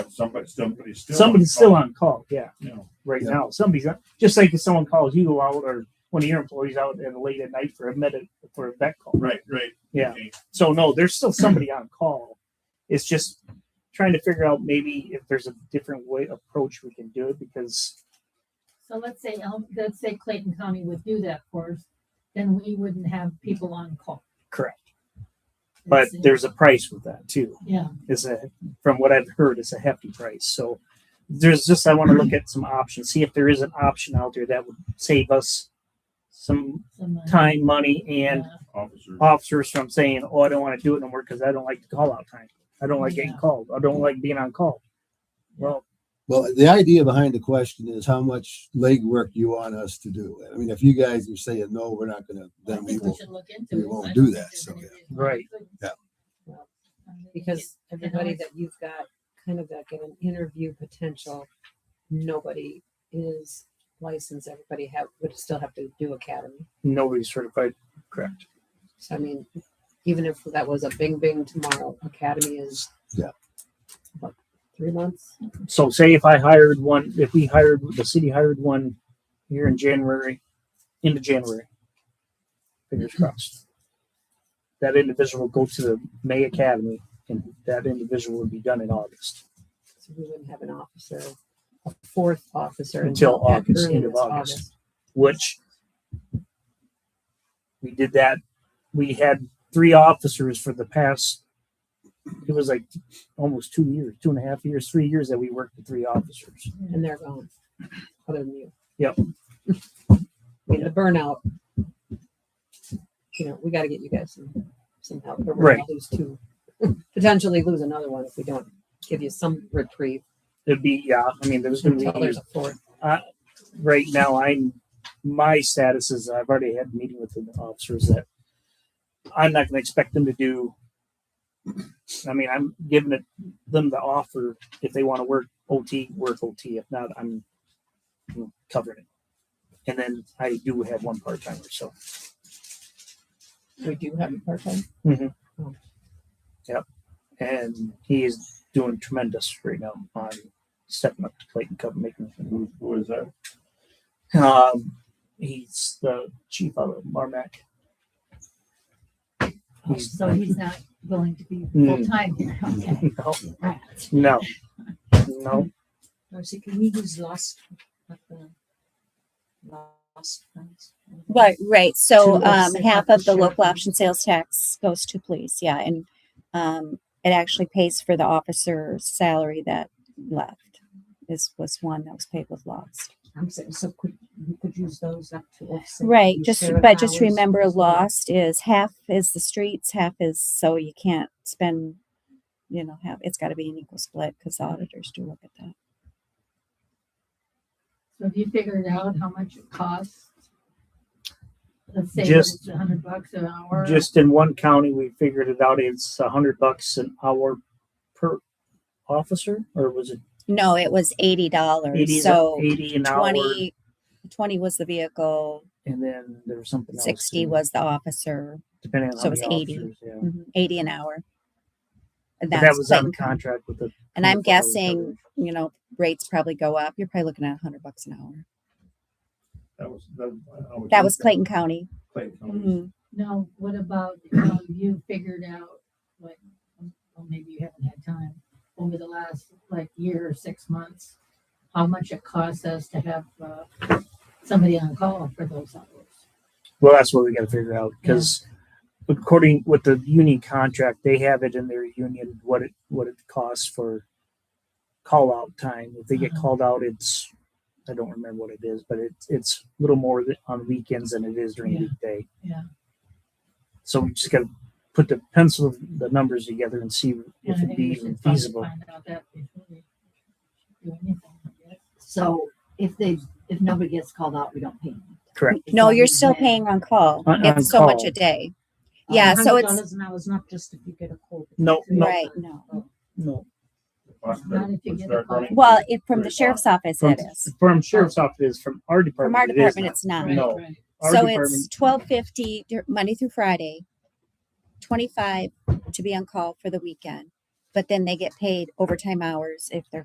Somebody, somebody's still. Somebody's still on call, yeah, You know, right Yeah. now. Somebody's on, just like if someone calls you out or one of your employees out at late at night for a medic for a vet call. right, right. Yeah. So no, there's still somebody on call. It's just trying to figure out maybe if there's a different way approach we can do it because So let's say, um, let's say Clayton County would do that for us, then we wouldn't have people on call. correct. But It's- there's a price with that too. Yeah, Is a from what I've heard, it's a hefty price. So there's just I want to look at some options, see if there is an option out there that would save us some someone- time, money, and yeah, Officer. officers from saying, "Oh, I don't want to do it no more because I don't like the call out time. I don't like getting Yeah. called. I don't like being on call." Well, Well, the idea behind the question is how much legwork you want us to do. I mean, if you guys are saying, no, we're not gonna, I then we think will. we should look into it. we I won't don't do think that, there's so, any yeah. reason we Right. couldn't. Yeah. I mean, because everybody always- that you've got kind of like an interview potential, nobody is licensed. Everybody have would still have to do academy. nobody's certified. Correct. So I mean, even if that was a bing bing tomorrow, academy is Yeah. what, three months. So, say if I hired one, if we hired the city hired one here in January, into January, fingers crossed. That individual will go to the May Academy, and that individual would be done in August. So we wouldn't have an officer, a fourth officer Until at August, end of earliest August. which we did that. We had three officers for the past, it was like almost two years, two and a half years, three years that we worked with three officers. and they're gone. Other than you. Yep. I mean, the burnout. You know, we got to get you guys some some help. Or we're Right. gonna lose two, potentially lose another one if we don't give you some reprieve It'd be, yeah, I mean, there's going to until be there's years. a fourth. Right now, I'm, my status is I've already had a meeting with the officers that I'm not going to expect them to do. I mean, I'm giving it, them the offer if they want to work OT, work OT. If not, I'm you know, covering it. And then I do have one part timer, so We do have a part time. and he is doing tremendous right now on stepping up to plate and cup making. Who, who is that? Um, he's the chief of Marmac. Oh, So he's not willing to be Mm. full-time here, Hmm. okay. No, Right. no, no. Darcy, can we use last, like the last funds? Right, right. So To um, offset half what of the the local sheriff- option sales tax goes to police, yeah, and um, it actually pays for the officer's salary that left. This was one that was paid with loss. I'm saying, so could, we could use those up to offset. Right, the just, sheriff but just hours. remember lost is half is the streets, half is, so you can't spend, you know, half, it's gotta be an equal split, because auditors do look at that. So have you figured out how much it costs? Let's say that Just- it's a hundred bucks an hour. Just in one county, we figured it out. It's a hundred bucks an hour per officer, or was it No, it was eighty eighty? dollars, so eighty an hour, twenty, twenty was the vehicle, and then there was something else sixty too, was the officer, depending on so how it was many 80. officers, yeah. mhm, eighty an hour. And Mm-hmm. But that that's was on Clayton County. contract with the. And I'm 24 hours guessing, coverage. you know, rates probably go up. You're probably looking at hundred bucks an hour. That was, that, I always That was think Clayton County. that Clayton County. Mm-hmm. Mhm. Now, what about, um, you figured out, like, um, well, maybe you haven't had time, over the last, like, year or six months, how much it costs us to have, uh, somebody on call for those hours? Well, that's what we got to figure out because according with the union contract, they have it in their union what it what it costs for call out time. If they get Uh-huh. called out, it's I don't remember what it is, but it's it's a little more th- on weekends than it is during Yeah. weekday. Yeah. So we just got to put the pencil the numbers together and see And if I it'd think be we even should probably feasible. Find out that before we do anything, I guess. So if they, if nobody gets called out, we don't pay them. Correct. It's No, on you're the still net. paying on call. On- on It's so much call. a day. Yeah, so it's, $100 an hour is not just if you get a call. No, no, right, no. no. Lost Not if you that- get start a call. running. Mm-hmm. Well, it, from Three the sheriff's office From, it is. from sheriff's office, it is. from our department. From our it is department, not. it's not. Right, No. right. Our So department- it's twelve fifty Monday through Friday, twenty-five to be on call for the weekend. But then they get paid overtime hours if they're